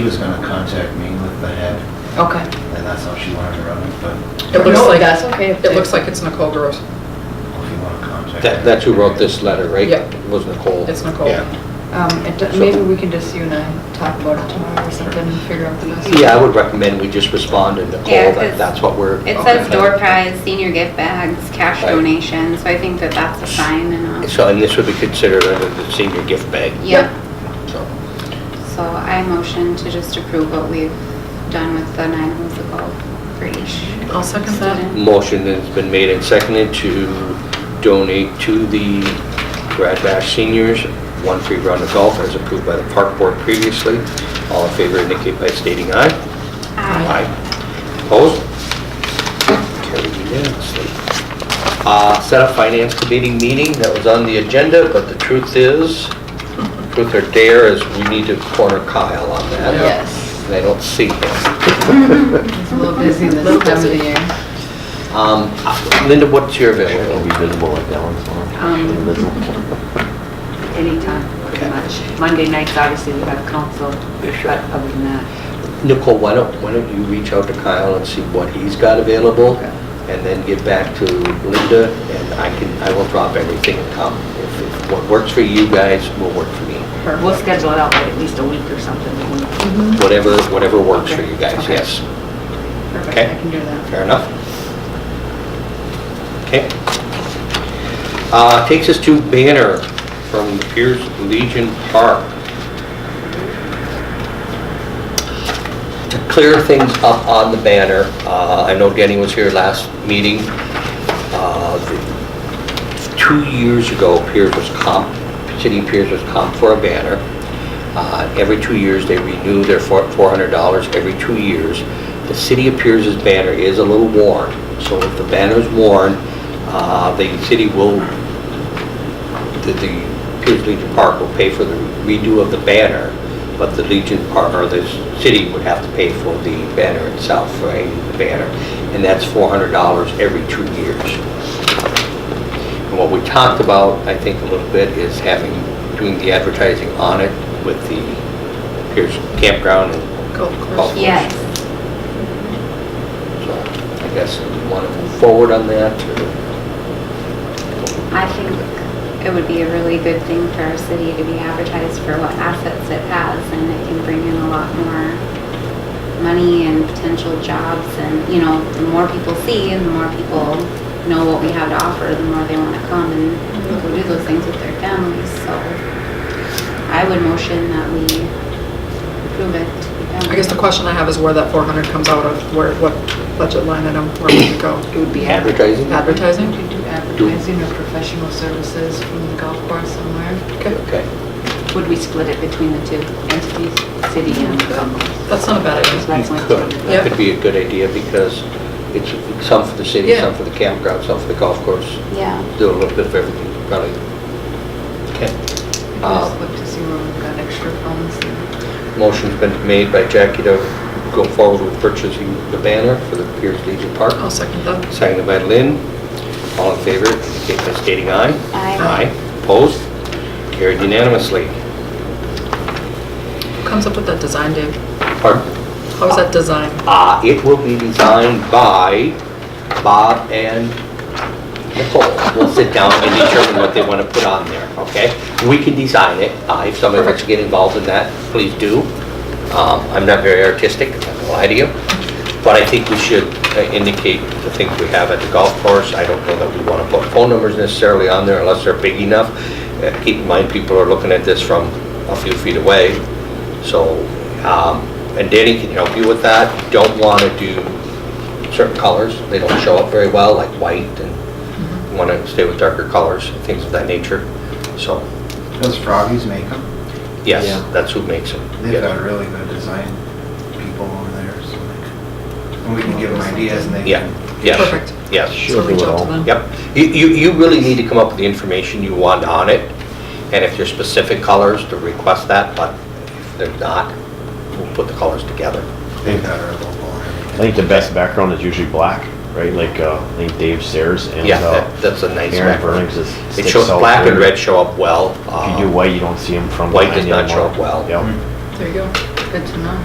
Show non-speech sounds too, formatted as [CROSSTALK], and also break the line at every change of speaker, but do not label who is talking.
gonna contact me with the head,
Okay.
and that's how she wanted to run it, but
It looks
No,
like-
That's okay. if
It
they-
looks like it's Nicole Gross.
if you wanna contact.
That,
her-
that's who wrote this letter, right?
Yeah.
Was Nicole?
It's Nicole.
Yeah,
Um, it do- Maybe we can just, you and I, talk about it tomorrow or something and figure out the best.
Yeah, I would recommend we just respond to Nicole,
Yeah,
that
'cause
that's what we're.
It
Okay.
says door prize, senior gift bags, cash
Right.
donations, so I think that that's a sign and a,
So, and this would be considered under the senior gift bag.
yep.
So,
So I motion to just approve what we've done with the nine holes of golf for each.
I'll second that.
student.
Motion has been made and seconded to donate to the Grad Bash seniors one free round of golf as approved by the park board previously. All in favor indicate by stating aye.
Aye.
Opposed? Carried unanimously. Uh, Set up finance committee meeting that was on the agenda, but the truth is, truth or dare is we need to corner Kyle on that.
Yes.
And I don't see him.
It's a little busy
Little
this time of the
busy.
year.
Um, Linda, what's your
It'll
availability?
be visible like that one's
Um,
on.
Anytime, pretty much. Monday nights, obviously, we have council,
Sure.
but other than that,
Nicole, why don't, why don't you reach out to Kyle and see what he's got available?
Okay.
And then get back to Linda and I can, I will drop everything and come. If- If what works for you guys will work for me.
we'll schedule it out like at least a week or something.
Whatever, whatever works for you guys,
Okay.
yes.
Perfect,
Okay.
I can do that.
Fair enough. Okay. Uh, Takes us to banner from Pierce Legion Park. To clear things up on the banner, uh, I know Denny was here last meeting. Uh, the- Two years ago, Pierce was comp, City of Pierce was comp for a banner. Uh, Every two years, they renew their four- $400 every two years. The city of Pierce's banner is a little worn, so if the banner's worn, uh, the city will, the the Pierce Legion Park will pay for the redo of the banner, but the Legion Park, or the city would have to pay for the banner itself, right, the banner, and that's $400 every two years. And what we talked about, I think, a little bit, is having, doing the advertising on it with the Pierce Campground and
Golf
Golf
course.
course.
Yes.
So I guess we want to move forward on that, or
I think it would be a really good thing for our city to be advertised for what assets it has, and it can bring in a lot more money and potential jobs, and, you know, the more people see and the more people know what we have to offer, the more they want to come and go do those things with their families, so I would motion that we approve it. to be
Um,
done.
I guess the question I have is where that 400 comes out of, where, what budget line item, where would it
[COUGHS]
go?
It would be
advertising?
Advertising?
You do advertising or professional services from the golf course somewhere?
Okay,
Okay.
Would we split it between the two entities, city and council?
that's not a bad idea.
That's
You
my
could.
thought.
Yeah.
That could be a good idea, because it's some for the city,
Yeah.
some for the campground, some for the golf course,
Yeah.
do a little bit of everything, probably. Okay.
I can
Uh,
just look to see where we've got extra funds.
Motion's been made by Jackie to go forward with purchasing the banner for the Pierce Legion Park.
I'll second that.
Seconded by Lynn. All in favor, indicate by stating aye.
Aye.
Opposed? Carried unanimously.
Who comes up with that design, Dave?
Pardon?
How is that designed?
Uh, It will be designed by Bob and Nicole. We'll sit down and determine what they want to put on there, okay? We can design it. Uh, If somebody wants to get involved in that, please do. Um, I'm not very artistic, I'm not gonna lie to you, but I think we should uh, indicate the things we have at the golf course. I don't know that we want to put phone numbers necessarily on there unless they're big enough. Uh, Keep in mind, people are looking at this from a few feet away, so, um, and Danny can help you with that. Don't want to do certain colors. They don't show up very well, like white, and want to stay with darker colors, things of that nature. So,
Does Froggies make them?
yes,
Yeah.
that's who makes them.
They've got really good design people over there, so they can- and we can give them ideas and they
Yeah,
can.
yes.
Perfect.
Yes,
Sure,
So reach
they
out to
will.
them.
yep. You, you you really need to come up with the information you want on it, and if there's specific colors, to request that, but if they're not, we'll put the colors together.
They've got our local.
I think the best background is usually black, right? Like, uh, I think Dave Sayers and
Yeah,
uh,
that- that's a nice
Aaron
background.
Burns is.
It
sticks
shows,
out
black and
there.
red show up well. uh,
If you do white, you don't see them from
White
behind
does
anymore.
Mm-hmm.
not show up well.
Yep.
There you go.
Good to know.